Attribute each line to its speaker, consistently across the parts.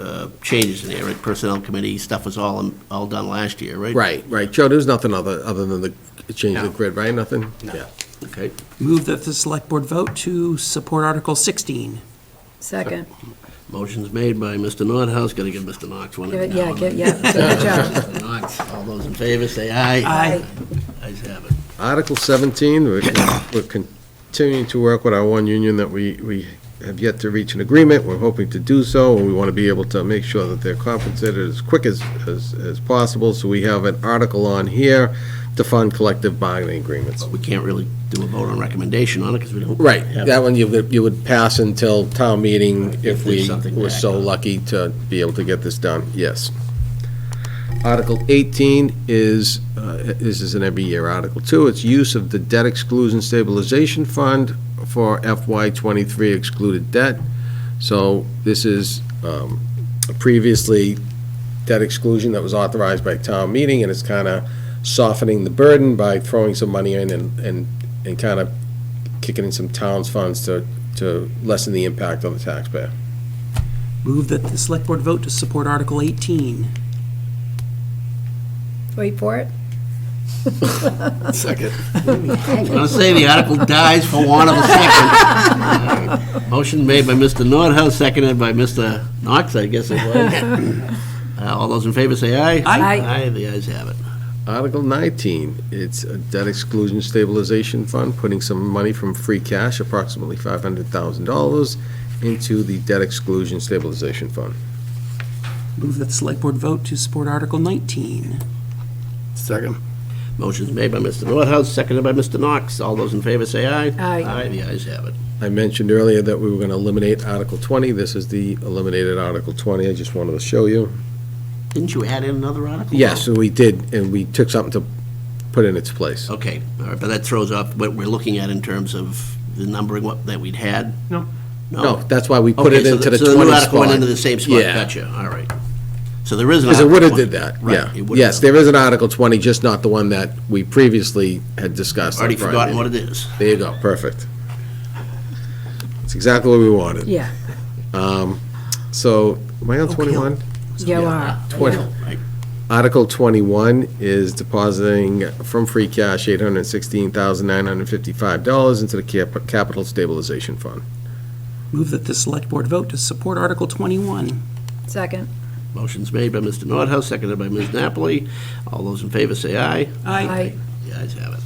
Speaker 1: uh, changes in there, right? Personnel committee stuff was all, all done last year, right?
Speaker 2: Right, right. Joe, there's nothing other, other than the change of the
Speaker 1: No.
Speaker 2: grid, right? Nothing?
Speaker 1: No.
Speaker 2: Yeah.
Speaker 1: Okay.
Speaker 3: Move that the select board vote to support Article 16.
Speaker 4: Second.
Speaker 1: Motion's made by Mr. Nordhaus, gotta give Mr. Knox one.
Speaker 4: Give it-
Speaker 1: every
Speaker 4: yeah,
Speaker 1: now and
Speaker 4: give-
Speaker 1: then.
Speaker 4: yeah, take a job.
Speaker 1: Mr. Knox, all those in favor, say aye.
Speaker 3: Aye.
Speaker 1: Ayes have it.
Speaker 2: Article 17, we're con- we're continuing to work with our one union that we, we have yet to reach an agreement. We're hoping to do so, and we want to be able to make sure that they're compensated as quick as, as, as possible. So we have an article on here to fund collective bargaining agreements.
Speaker 1: We can't really do a vote on recommendation on it, because we don't.
Speaker 2: Right,
Speaker 1: have-
Speaker 2: that one you would, you would pass until town meeting if
Speaker 1: If there's
Speaker 2: we
Speaker 1: something
Speaker 2: were
Speaker 1: back
Speaker 2: so
Speaker 1: on.
Speaker 2: lucky to be able to get this done, yes. Article 18 is, uh, this is an every year Article 2, it's use of the debt exclusion stabilization fund for FY '23 excluded debt. So this is um, previously debt exclusion that was authorized by town meeting, and it's kind of softening the burden by throwing some money in and, and, and kind of kicking in some town's funds to, to lessen the impact on the taxpayer.
Speaker 3: Move that the select board vote to support Article 18.
Speaker 4: Wait for it.
Speaker 1: Second. I'm gonna say the article dies for want of a second. Motion made by Mr. Nordhaus, seconded by Mr. Knox, I guess it was. Uh, All those in favor say aye.
Speaker 3: Aye.
Speaker 1: Aye, the ayes have it.
Speaker 2: Article 19, it's a debt exclusion stabilization fund, putting some money from free cash, approximately $500,000, into the debt exclusion stabilization fund.
Speaker 3: Move that the select board vote to support Article 19.
Speaker 1: Second. Motion's made by Mr. Nordhaus, seconded by Mr. Knox. All those in favor say aye.
Speaker 4: Aye.
Speaker 1: Aye, the ayes have it.
Speaker 2: I mentioned earlier that we were going to eliminate Article 20. This is the eliminated Article 20. I just wanted to show you.
Speaker 1: Didn't you add in another article?
Speaker 2: Yes, and we did, and we took something to put in its place.
Speaker 1: Okay, all right, but that throws off what we're looking at in terms of the numbering what- that we'd had?
Speaker 3: No.
Speaker 2: No, that's why we put
Speaker 1: Okay,
Speaker 2: it
Speaker 1: so
Speaker 2: into the
Speaker 1: so new
Speaker 2: 20
Speaker 1: article went
Speaker 2: spot.
Speaker 1: into the same spot,
Speaker 2: Yeah.
Speaker 1: gotcha, all right. So there is an
Speaker 2: Because
Speaker 1: article
Speaker 2: it would have
Speaker 1: one.
Speaker 2: did that,
Speaker 1: Right,
Speaker 2: yeah.
Speaker 1: it would've
Speaker 2: Yes,
Speaker 1: done.
Speaker 2: there is an Article 20, just not the one that we previously had discussed.
Speaker 1: Already forgotten what it is.
Speaker 2: There you go, perfect. It's exactly what we wanted.
Speaker 4: Yeah,
Speaker 2: So, am I on 21?
Speaker 4: you are.
Speaker 2: Twenty.
Speaker 1: Right.
Speaker 2: Article 21 is depositing from free cash $816,955 into the cap- capital stabilization fund.
Speaker 3: Move that the select board vote to support Article 21.
Speaker 4: Second.
Speaker 1: Motion's made by Mr. Nordhaus, seconded by Ms. Napoli. All those in favor say aye.
Speaker 4: Aye.
Speaker 1: The ayes have it.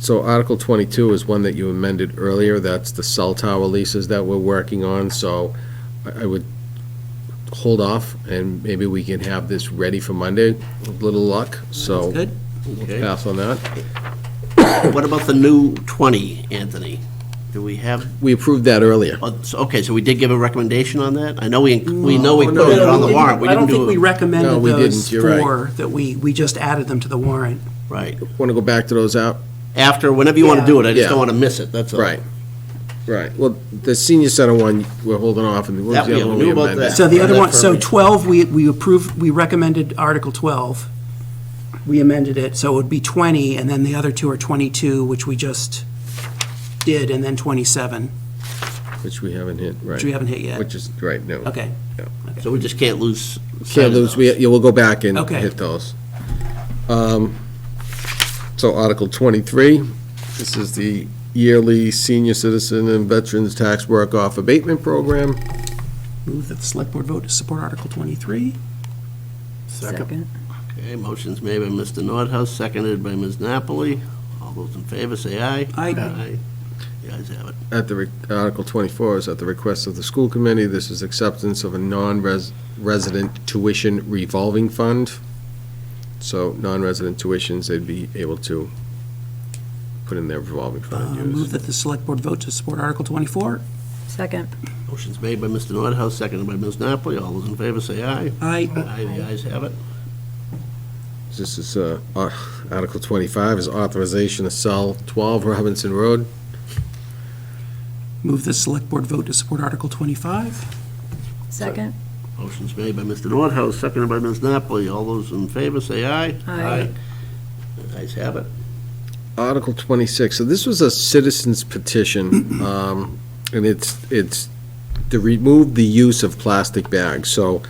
Speaker 2: So Article 22 is one that you amended earlier, that's the cell tower leases that we're working on, so I I would hold off, and maybe we can have this ready for Monday, with little luck, so
Speaker 3: Good?
Speaker 1: Okay.
Speaker 2: pass on that.
Speaker 1: What about the new 20, Anthony? Do we have,
Speaker 2: We approved that earlier.
Speaker 1: oh, so- okay, so we did give a recommendation on that? I know we, we know we
Speaker 2: No,
Speaker 1: put it
Speaker 2: no,
Speaker 1: Oh, on the warrant. We
Speaker 3: I don't
Speaker 1: didn't
Speaker 3: think we
Speaker 1: do, a-
Speaker 2: No,
Speaker 3: recommended
Speaker 2: we
Speaker 3: those
Speaker 2: didn't, you're right.
Speaker 3: four, that we, we just added them to the warrant.
Speaker 1: right.
Speaker 2: Want to go back to those out?
Speaker 1: After, whenever you want to
Speaker 3: Yeah.
Speaker 1: do it, I just
Speaker 2: Yeah.
Speaker 1: don't want to miss it, that's all.
Speaker 2: Right, right. Well, the senior center one, we're holding off, and what was
Speaker 1: That
Speaker 2: the
Speaker 1: we
Speaker 2: other one we
Speaker 1: knew about
Speaker 2: amended?
Speaker 1: that.
Speaker 3: So the
Speaker 1: Yeah,
Speaker 3: other
Speaker 1: that
Speaker 3: one, so
Speaker 1: perfect.
Speaker 3: 12, we, we approved, we recommended Article 12. We amended it, so it would be 20, and then the other two are 22, which we just did, and then 27,
Speaker 2: Which we haven't hit, right.
Speaker 3: which we haven't hit yet.
Speaker 2: Which is, right, no.
Speaker 3: Okay.
Speaker 1: So we just can't lose. sight
Speaker 2: Can't
Speaker 1: of
Speaker 2: lose,
Speaker 1: those.
Speaker 2: we, yeah, we'll go back and
Speaker 3: Okay.
Speaker 2: hit those. Um, So Article 23, this is the yearly senior citizen and veterans tax work-off abatement program.
Speaker 3: Move that the select board vote to support Article 23.
Speaker 4: Second.
Speaker 1: Okay, motion's made by Mr. Nordhaus, seconded by Ms. Napoli. All those in favor say aye.
Speaker 3: Aye.
Speaker 1: The ayes have it.
Speaker 2: At the, re- Article 24 is at the request of the school committee, this is acceptance of a non-resident tuition revolving fund. So non-resident tuitions, they'd be able to put in their revolving
Speaker 3: Uh,
Speaker 2: fund and use.
Speaker 3: Move that the select board vote to support Article 24.
Speaker 4: Second.
Speaker 1: Motion's made by Mr. Nordhaus, seconded by Ms. Napoli. All those in favor say aye.
Speaker 3: Aye.
Speaker 1: Aye, the ayes have it.
Speaker 2: This is, uh, uh, Article 25 is authorization to sell 12 Robinson Road.
Speaker 3: Move the select board vote to support Article 25.
Speaker 4: Second.
Speaker 1: Motion's made by Mr. Nordhaus, seconded by Ms. Napoli. All those in favor say aye.
Speaker 4: Aye.
Speaker 1: The ayes have it.
Speaker 2: Article 26, so this was a citizen's petition, um, and it's, it's to remove the use of plastic bags. So